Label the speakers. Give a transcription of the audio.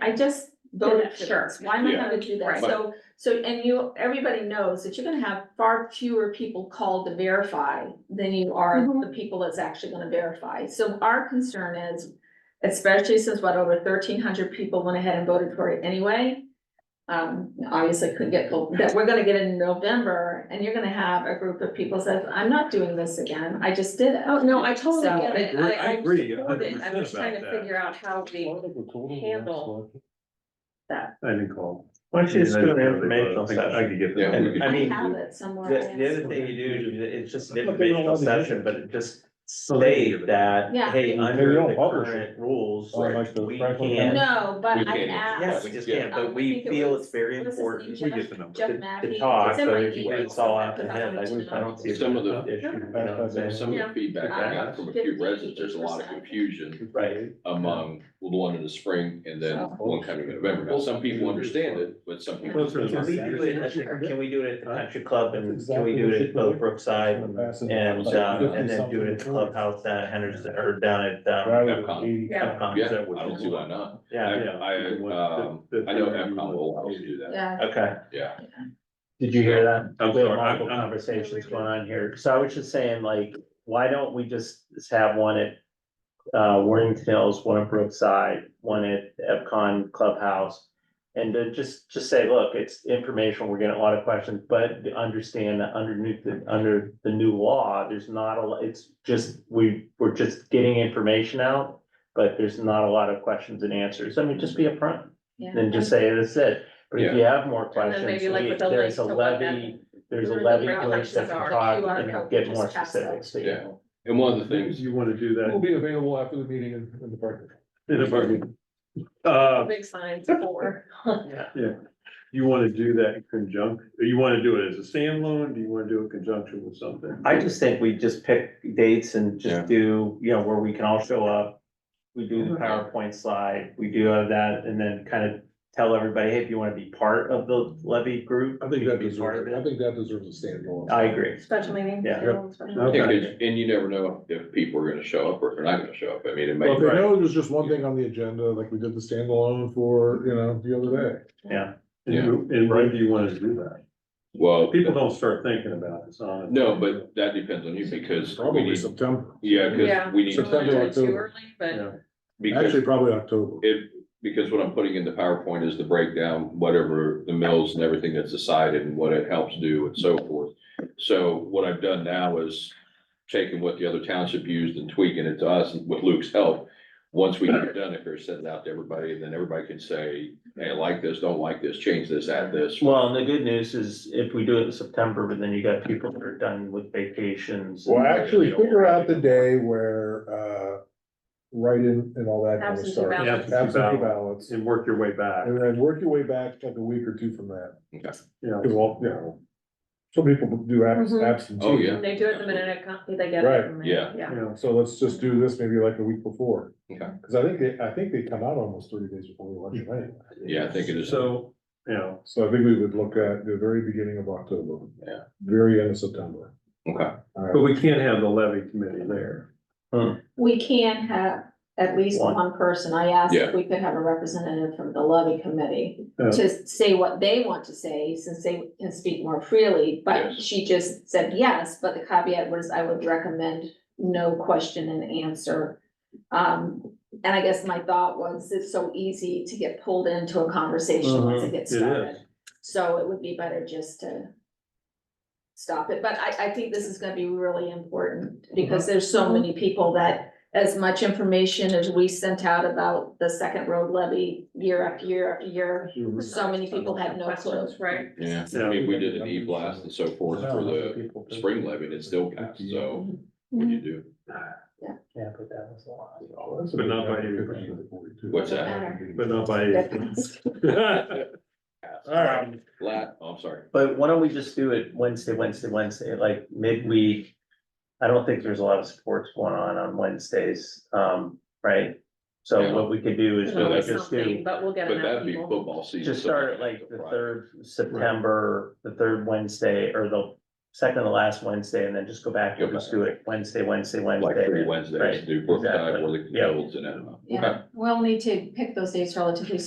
Speaker 1: I just
Speaker 2: Voted
Speaker 1: did
Speaker 2: for
Speaker 1: it, sure,
Speaker 2: this.
Speaker 1: why am I
Speaker 3: Yeah.
Speaker 1: gonna do that?
Speaker 2: Right.
Speaker 1: So, so, and you, everybody knows that you're gonna have far fewer people called to verify than you are
Speaker 2: Mhm.
Speaker 1: the people that's actually gonna verify. So our concern is, especially since what, over thirteen hundred people went ahead and voted for it anyway. Um, obviously couldn't get, full- that we're gonna get in November and you're gonna have a group of people says, I'm not doing this again, I just did it.
Speaker 2: Oh, no, I totally
Speaker 1: So-
Speaker 2: get it.
Speaker 3: I agree- I
Speaker 2: I'm
Speaker 3: agree a
Speaker 2: supportive.
Speaker 3: hundred
Speaker 2: I'm just
Speaker 3: percent
Speaker 2: trying to
Speaker 3: about that.
Speaker 2: figure out how we handle that.
Speaker 3: I didn't call.
Speaker 4: Why don't you just do an
Speaker 3: I
Speaker 4: informational
Speaker 3: think I
Speaker 4: session?
Speaker 3: could get.
Speaker 5: Yeah, we
Speaker 4: And
Speaker 3: that.
Speaker 4: I
Speaker 1: I
Speaker 4: mean,
Speaker 1: have
Speaker 4: the,
Speaker 1: it somewhere.
Speaker 4: the
Speaker 1: yes.
Speaker 4: other thing you do, is it's just an
Speaker 3: But they don't
Speaker 4: informational
Speaker 3: want to do
Speaker 4: session,
Speaker 3: it.
Speaker 4: but it just
Speaker 3: So they give
Speaker 4: state
Speaker 3: it.
Speaker 4: that,
Speaker 1: Yeah.
Speaker 4: hey,
Speaker 6: They
Speaker 4: under
Speaker 6: don't
Speaker 4: the
Speaker 6: publish it.
Speaker 4: current rules,
Speaker 6: Oh, like the
Speaker 4: we
Speaker 6: Franklin
Speaker 4: can't.
Speaker 1: No, but
Speaker 5: We
Speaker 1: I
Speaker 5: can't.
Speaker 4: Yeah,
Speaker 1: asked
Speaker 4: we just
Speaker 5: Yeah.
Speaker 4: can't,
Speaker 1: Um, I
Speaker 4: but we
Speaker 1: think it
Speaker 4: feel
Speaker 1: was-
Speaker 4: it's very
Speaker 1: what is his
Speaker 4: important
Speaker 1: name?
Speaker 4: to,
Speaker 3: We get the number.
Speaker 1: Jeff
Speaker 4: to
Speaker 1: Mackey.
Speaker 4: talk,
Speaker 1: it's in
Speaker 4: so
Speaker 1: my
Speaker 4: if you
Speaker 1: email,
Speaker 4: it's all
Speaker 1: so I
Speaker 4: out
Speaker 1: put
Speaker 4: the
Speaker 1: that
Speaker 4: head,
Speaker 1: on
Speaker 4: I
Speaker 1: the
Speaker 4: don't, I don't see.
Speaker 5: Some of the-
Speaker 4: an issue, you know what I'm
Speaker 6: Yeah.
Speaker 4: saying?
Speaker 5: Some of
Speaker 1: Yeah.
Speaker 5: the feedback I got from a few residents, there's a lot of confusion
Speaker 4: Right,
Speaker 5: among the one in the spring and then one coming in November. Well, some people understand it, but some people.
Speaker 3: Closer to
Speaker 4: can we do it, at the- can we do it at the country club and can we do it at both Brookside? And, uh, and then do it at the clubhouse down at Henderson, or down at, um, Epcot,
Speaker 5: Yeah,
Speaker 4: is
Speaker 5: I
Speaker 4: that what you
Speaker 5: don't see
Speaker 4: want?
Speaker 5: why not.
Speaker 4: Yeah,
Speaker 5: I, I, um, I know Epcot will always do that,
Speaker 1: Yeah,
Speaker 4: okay.
Speaker 5: yeah.
Speaker 4: Did you hear that?
Speaker 3: I'm
Speaker 4: We have
Speaker 3: sorry,
Speaker 4: multiple
Speaker 3: I'm- I'm-
Speaker 4: Conversations going on here. So I was just saying, like, why don't we just have one at uh, Worthington Hills, one at Brookside, one at Epcon Clubhouse? And then just, just say, look, it's informational. We're getting a lot of questions, but understand that underneath the, under the new law, there's not a, lo- it's just, we, we're just getting information out. But there's not a lot of questions and answers. I mean, just be upfront
Speaker 1: yeah.
Speaker 4: and just say, this is it. But if you have more
Speaker 2: And
Speaker 4: questions,
Speaker 2: then maybe like
Speaker 4: we-
Speaker 2: with the link
Speaker 4: there's a
Speaker 2: to what
Speaker 4: levy
Speaker 2: that,
Speaker 4: there's a
Speaker 1: Where the
Speaker 4: levy
Speaker 1: ground
Speaker 4: glitch
Speaker 1: taxes
Speaker 4: that can
Speaker 1: are,
Speaker 4: talk
Speaker 1: you are
Speaker 4: and
Speaker 1: helping
Speaker 4: get
Speaker 1: us
Speaker 4: more
Speaker 1: pass that.
Speaker 4: specific, so you
Speaker 5: Yeah.
Speaker 4: know.
Speaker 5: And one of the things,
Speaker 6: You wanna do
Speaker 3: We'll
Speaker 6: that? be available after the meeting in, in the park.
Speaker 3: In a bargain. Uh,
Speaker 2: big signs for.
Speaker 4: Yeah.
Speaker 6: You wanna do that in conjunction, you wanna do it as a standalone, do you wanna do it in conjunction with something?
Speaker 4: I just think we just pick dates and
Speaker 5: Yeah.
Speaker 4: just do, you know, where we can all show up. We do
Speaker 2: Mm-hmm.
Speaker 4: the PowerPoint slide, we do have that, and then kind of tell everybody, hey, if you wanna be part of the levy group.
Speaker 6: I think
Speaker 4: you
Speaker 6: that
Speaker 4: can be part
Speaker 6: deserves,
Speaker 4: of
Speaker 6: I
Speaker 4: it.
Speaker 6: think that deserves a standalone.
Speaker 4: I agree.
Speaker 2: Special meeting.
Speaker 4: Yeah.
Speaker 2: Yeah.
Speaker 5: yeah,
Speaker 6: Okay.
Speaker 5: 'cause- and you never know if people are gonna show up or if they're not gonna show up. I mean, it
Speaker 6: Well,
Speaker 5: may.
Speaker 6: if they know there's just one thing on the agenda, like we did the standalone for, you know, the other day.
Speaker 4: Yeah.
Speaker 5: And
Speaker 6: and when do you wanna do that?
Speaker 5: Well,
Speaker 6: don't start thinking about it, so.
Speaker 5: no, but that depends on you because we
Speaker 6: Probably
Speaker 5: need,
Speaker 6: September,
Speaker 5: yeah, because we need. to
Speaker 6: September,
Speaker 5: do it
Speaker 2: Too
Speaker 6: October.
Speaker 2: early, but
Speaker 5: Because
Speaker 6: actually probably October.
Speaker 5: It, because what I'm putting in the PowerPoint is the breakdown, whatever the mills and everything that's decided and what it helps do and so forth. So what I've done now is taking what the other township used and tweaking it to us with Luke's help. Once we get it done, if they're sending out to everybody, and then everybody can say, hey, I like this, don't like this, change this, add this.
Speaker 4: Well, and the good news is if we do it in September, but then you got people that are done with vacations. and-
Speaker 6: Well, actually figure out the day where, uh, write-in and all that kind of
Speaker 2: Absentee
Speaker 6: stuff.
Speaker 2: ballot.
Speaker 3: Yeah, absentee
Speaker 6: Absentee
Speaker 3: ballot.
Speaker 6: ballots,
Speaker 3: And work your way back.
Speaker 6: and then work your way back like a week or two from that,
Speaker 5: Okay.
Speaker 3: Yeah.
Speaker 6: because well, you know, some people do abs-
Speaker 2: Mhm.
Speaker 6: absentee.
Speaker 5: Oh, yeah.
Speaker 2: they do it the minute it comes, they get
Speaker 6: Right.
Speaker 2: it. from me.
Speaker 5: Yeah.
Speaker 2: Yeah.
Speaker 6: You know, so let's just do this maybe like a week before.
Speaker 5: Okay.
Speaker 6: Cause I think they, I think they come out almost thirty days before the election, right?
Speaker 5: Yeah, I think it is.
Speaker 3: So, you know,
Speaker 6: So I think we would look at the very beginning of October.
Speaker 5: Yeah.
Speaker 6: Very end of September.
Speaker 5: Okay.
Speaker 6: All
Speaker 3: but
Speaker 6: right.
Speaker 3: we can't have the levy committee there.
Speaker 1: We can have at least
Speaker 4: One.
Speaker 1: one person. I asked
Speaker 5: Yeah.
Speaker 1: if we could have a representative from the levy committee to say what they want to say, since they can speak more freely, but
Speaker 5: Yes.
Speaker 1: she just said yes, but the caveat was I would recommend no question and answer. Um, and I guess my thought was, it's so easy to get pulled into a conversation once it gets
Speaker 3: Mhm, it
Speaker 1: started. So it would be better just to stop it, but I, I think this is gonna be really important, because there's so many people that as much information as we sent out about the second road levy year after year after year, so many people had no clue.
Speaker 2: Questions, right?
Speaker 5: Yeah, I mean, we did an e-blast and so forth for the spring levy and it still passed, so what do you do?
Speaker 4: Yeah, but that was a lot.
Speaker 6: Oh,
Speaker 3: But not by
Speaker 5: What's
Speaker 1: that?
Speaker 3: But not by.
Speaker 1: That's-
Speaker 4: All right.
Speaker 5: Lat, oh, I'm sorry.
Speaker 4: But why don't we just do it Wednesday, Wednesday, Wednesday, like midweek? I don't think there's a lot of sports going on on Wednesdays, um, right?
Speaker 5: Yeah.
Speaker 4: So what we could do is
Speaker 5: No,
Speaker 4: really
Speaker 5: that's-
Speaker 4: just do,
Speaker 2: Something, But we'll get
Speaker 5: But
Speaker 2: enough
Speaker 5: that'd be
Speaker 2: people.
Speaker 5: football season.
Speaker 4: just
Speaker 5: so
Speaker 4: start
Speaker 5: we'd
Speaker 4: at like
Speaker 5: have
Speaker 4: the
Speaker 5: to Friday.
Speaker 4: third September, the third Wednesday, or the second to last Wednesday, and then just go back and
Speaker 5: Go
Speaker 4: just do it Wednesday, Wednesday,
Speaker 5: Like
Speaker 4: Wednesday.
Speaker 5: three Wednesdays,
Speaker 4: Right,
Speaker 5: do Brookside,
Speaker 4: exactly.
Speaker 5: Worthington
Speaker 4: Yeah.
Speaker 5: Hills and, uh, okay.
Speaker 1: Yeah, we'll need to pick those dates relatively